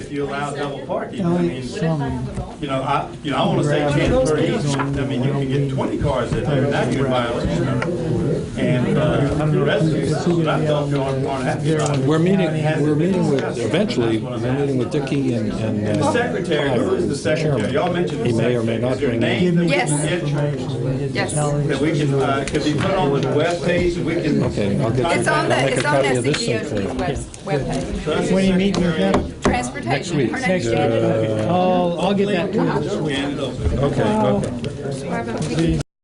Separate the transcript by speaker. Speaker 1: if you allow double parking. I
Speaker 2: Elliot,
Speaker 1: mean,
Speaker 2: some,
Speaker 1: you know, I, you know, I wanna say ten per each, I mean, you can get twenty cars in there, now you're in violation. And, uh, the rest of it, but I thought you aren't, aren't happy about it.
Speaker 3: We're meeting, we're meeting with, eventually, we're meeting with Dicky and, and. uh,
Speaker 1: The secretary, who is the secretary? Y'all mentioned the
Speaker 3: He may
Speaker 1: secretary.
Speaker 3: or may not
Speaker 1: Is there a
Speaker 3: bring
Speaker 1: name that we
Speaker 4: Yes.
Speaker 1: can get
Speaker 4: Yes.
Speaker 1: That we can, uh, could be put on the webpage, and we can.
Speaker 3: Okay, I'll get-
Speaker 4: It's on
Speaker 3: I'll
Speaker 4: the,
Speaker 3: make
Speaker 4: it's
Speaker 3: a
Speaker 4: on
Speaker 3: copy of
Speaker 4: the
Speaker 3: this thing for
Speaker 4: CEO's
Speaker 3: you.
Speaker 4: web- webpage.
Speaker 1: When you meet with them?
Speaker 3: Next
Speaker 4: Transportation,
Speaker 3: week.
Speaker 4: her
Speaker 3: Next
Speaker 4: name's
Speaker 3: week.
Speaker 4: Janet.
Speaker 1: uh,
Speaker 2: I'll, I'll get that to you.
Speaker 1: And it'll-
Speaker 3: Okay, okay.